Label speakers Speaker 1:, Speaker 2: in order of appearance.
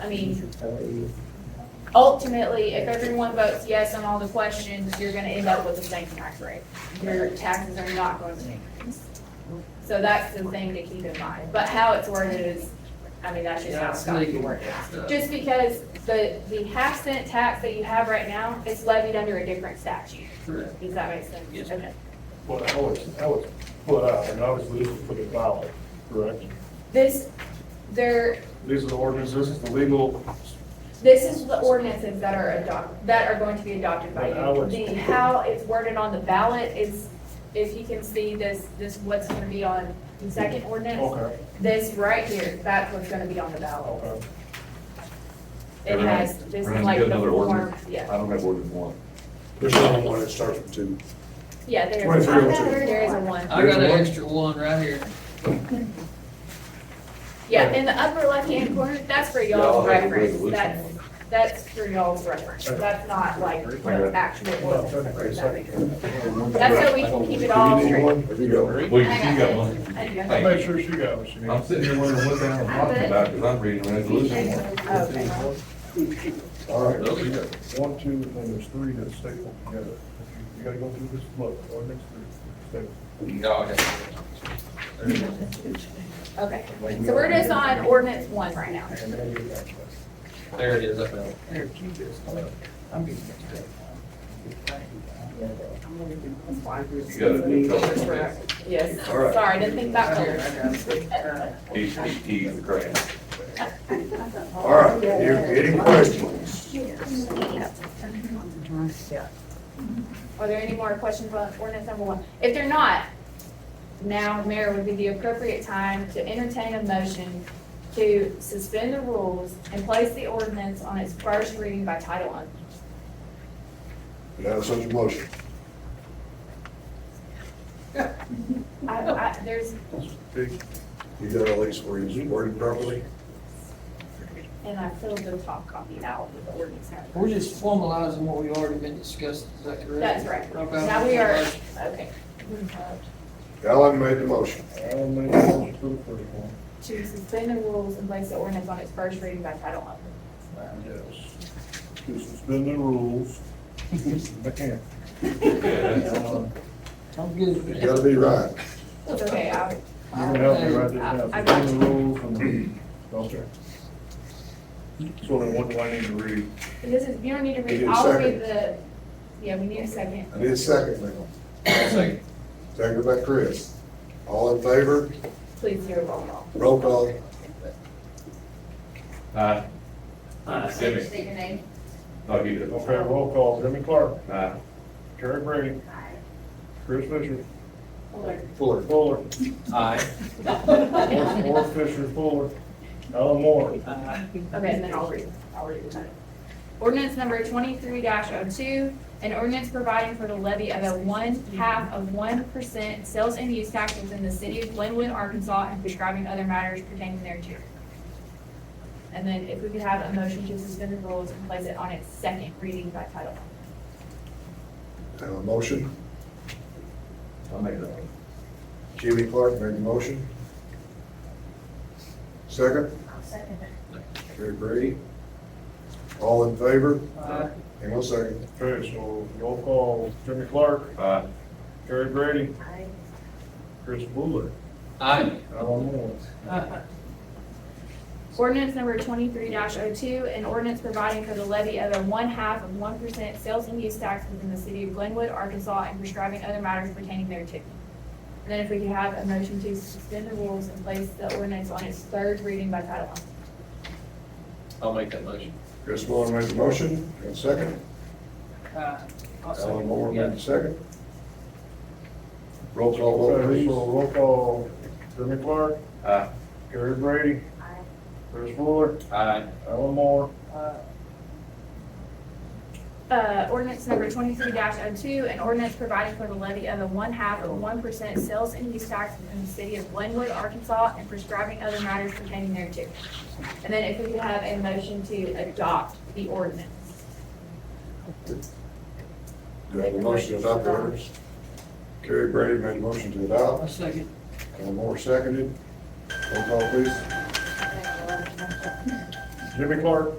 Speaker 1: I mean, ultimately, if everyone votes yes on all the questions, you're gonna end up with the same tax rate. Your taxes are not going to increase. So that's the thing to keep in mind, but how it's worded is, I mean, that's just how it's got to be worded. Just because the, the half cent tax that you have right now is levied under a different statute.
Speaker 2: Correct.
Speaker 1: Does that make sense?
Speaker 2: Yes,
Speaker 1: Okay.
Speaker 3: Well, I was, I was put out, and obviously this is for the ballot, correct?
Speaker 1: This, there,
Speaker 3: These are the ordinances, this is the legal,
Speaker 1: This is the ordinances that are adopt, that are going to be adopted by
Speaker 3: But I
Speaker 1: you.
Speaker 3: would-
Speaker 1: The, how it's worded on the ballot is, if you can see this, this what's gonna be on the second ordinance,
Speaker 3: okay,
Speaker 1: this right here, that's what's gonna be on the ballot.
Speaker 3: okay.
Speaker 1: It
Speaker 4: Everyone-
Speaker 1: has, this is
Speaker 4: everyone's
Speaker 1: like
Speaker 4: got
Speaker 1: the
Speaker 4: another
Speaker 1: form,
Speaker 4: ordinance?
Speaker 1: yeah,
Speaker 4: I don't have ordinance one.
Speaker 5: There's only one that starts with two.
Speaker 1: yeah, there is,
Speaker 5: 2302.
Speaker 1: there is a one.
Speaker 2: I got an extra one right here.
Speaker 1: Yeah, in the upper left-hand corner, that's for y'all's
Speaker 4: Yeah, I'll have a
Speaker 1: reference,
Speaker 4: resolution
Speaker 1: that's,
Speaker 4: one.
Speaker 1: that's for y'all's reference, that's not like the
Speaker 4: Okay.
Speaker 1: actual.
Speaker 3: Well,
Speaker 1: ordinance, if that makes sense. That's
Speaker 3: That's
Speaker 1: so we can keep it all straight.
Speaker 4: There you go. Well, you you got one.
Speaker 1: I do.
Speaker 4: Thank
Speaker 3: Make
Speaker 4: you.
Speaker 3: sure she got what she
Speaker 4: I'm
Speaker 3: needs.
Speaker 4: sitting here wondering what the hell I'm talking about, because I'm reading a resolution one.
Speaker 1: Okay.
Speaker 3: All right,
Speaker 4: Okay.
Speaker 3: you got one, two, and then there's three that's stapled together. You gotta go through this look, ordinance three,
Speaker 4: No, okay.
Speaker 1: Okay, so we're just on ordinance one right now.
Speaker 3: stapled. And then you got this.
Speaker 2: There it is, I found it.
Speaker 4: You got a new color.
Speaker 1: Yes,
Speaker 4: All right.
Speaker 1: sorry, I didn't think that clear.
Speaker 4: He's, he's the crane.
Speaker 5: All right, any questions?
Speaker 1: Are there any more questions on ordinance number one? If they're not, now, Mayor, would be the appropriate time to entertain a motion to suspend the rules and place the ordinance on its first reading by title only.
Speaker 5: You have such a motion.
Speaker 1: I, I, there's,
Speaker 5: You got at least where it's worded properly?
Speaker 1: and I filled the top copy out with the ordinance.
Speaker 2: We're just formalizing what we already been discussing, is that correct?
Speaker 1: That's right.
Speaker 2: Okay.
Speaker 1: Now we are, okay,
Speaker 5: Alan made the motion.
Speaker 3: I'll make a motion to approve one.
Speaker 1: to suspend the rules and place the ordinance on its first reading by title only.
Speaker 3: Yes. To suspend the rules.
Speaker 4: Yeah.
Speaker 3: Uh,
Speaker 2: I'm good.
Speaker 5: You gotta be right.
Speaker 1: It's okay, I,
Speaker 3: You're gonna help me write this down, suspend the rules and, okay. So then what do I need to read?
Speaker 1: this is, you don't need to
Speaker 5: We
Speaker 1: read,
Speaker 5: need a
Speaker 1: I'll read the, yeah, we need a second.
Speaker 5: I need a second now.
Speaker 4: Second.
Speaker 5: Second by Chris. All in favor?
Speaker 1: Please do a roll call.
Speaker 5: Roll call.
Speaker 4: Aye. Jimmy.
Speaker 1: State your name.
Speaker 4: I'll give you
Speaker 3: Okay, roll call, Jimmy Clark,
Speaker 4: that. Aye.
Speaker 3: Jerry Brady, Chris Fisher,
Speaker 5: Fuller.
Speaker 3: Fuller,
Speaker 4: Aye.
Speaker 3: Morris Morris Fisher, Fuller, Alan Moore.
Speaker 1: Okay, and then I'll read, I'll read the title. Ordinance number twenty-three 2 an ordinance providing for the levy of a one-half of one percent sales and use tax within the city of Glenwood, Arkansas, and prescribing other matters pertaining thereto. And then if we could have a motion to suspend the rules and place it on its second reading by title.
Speaker 5: Have a motion.
Speaker 4: I'll make that.
Speaker 5: Jimmy Clark made the motion. Second? second. Jerry Brady. All in favor?
Speaker 2: Aye.
Speaker 5: Hang on a second.
Speaker 3: Okay, so roll call, Jimmy Clark,
Speaker 4: Aye.
Speaker 3: Jerry Brady. Chris Fuller,
Speaker 2: Aye.
Speaker 3: Alan Moore.
Speaker 1: Ordinance number twenty-three 2 an ordinance providing for the levy of a one-half of one percent sales and use tax within the city of Glenwood, Arkansas, and prescribing other matters pertaining thereto. And then if we could have a motion to suspend the rules and place the ordinance on its third reading by title only.
Speaker 2: I'll make that motion.
Speaker 5: Chris Fuller made the motion. Have a second. Alan Moore made the second. Roll call vote,
Speaker 3: Okay,
Speaker 5: please.
Speaker 3: so roll call, Jimmy Clark,
Speaker 4: Aye.
Speaker 3: Jerry Brady. Chris Fuller,
Speaker 4: Aye.
Speaker 3: Alan Moore.
Speaker 1: Uh, ordinance number twenty-three 2 an ordinance providing for the levy of a one-half of one percent sales and use tax within the city of Glenwood, Arkansas, and prescribing other matters pertaining thereto. And then if we could have a motion to adopt the ordinance.
Speaker 5: Do I have a motion to adopt the ordinance? Carrie Brady made a motion to adopt.
Speaker 2: I'll second.
Speaker 5: Alan Moore seconded. Roll call, please.
Speaker 3: Jimmy Clark.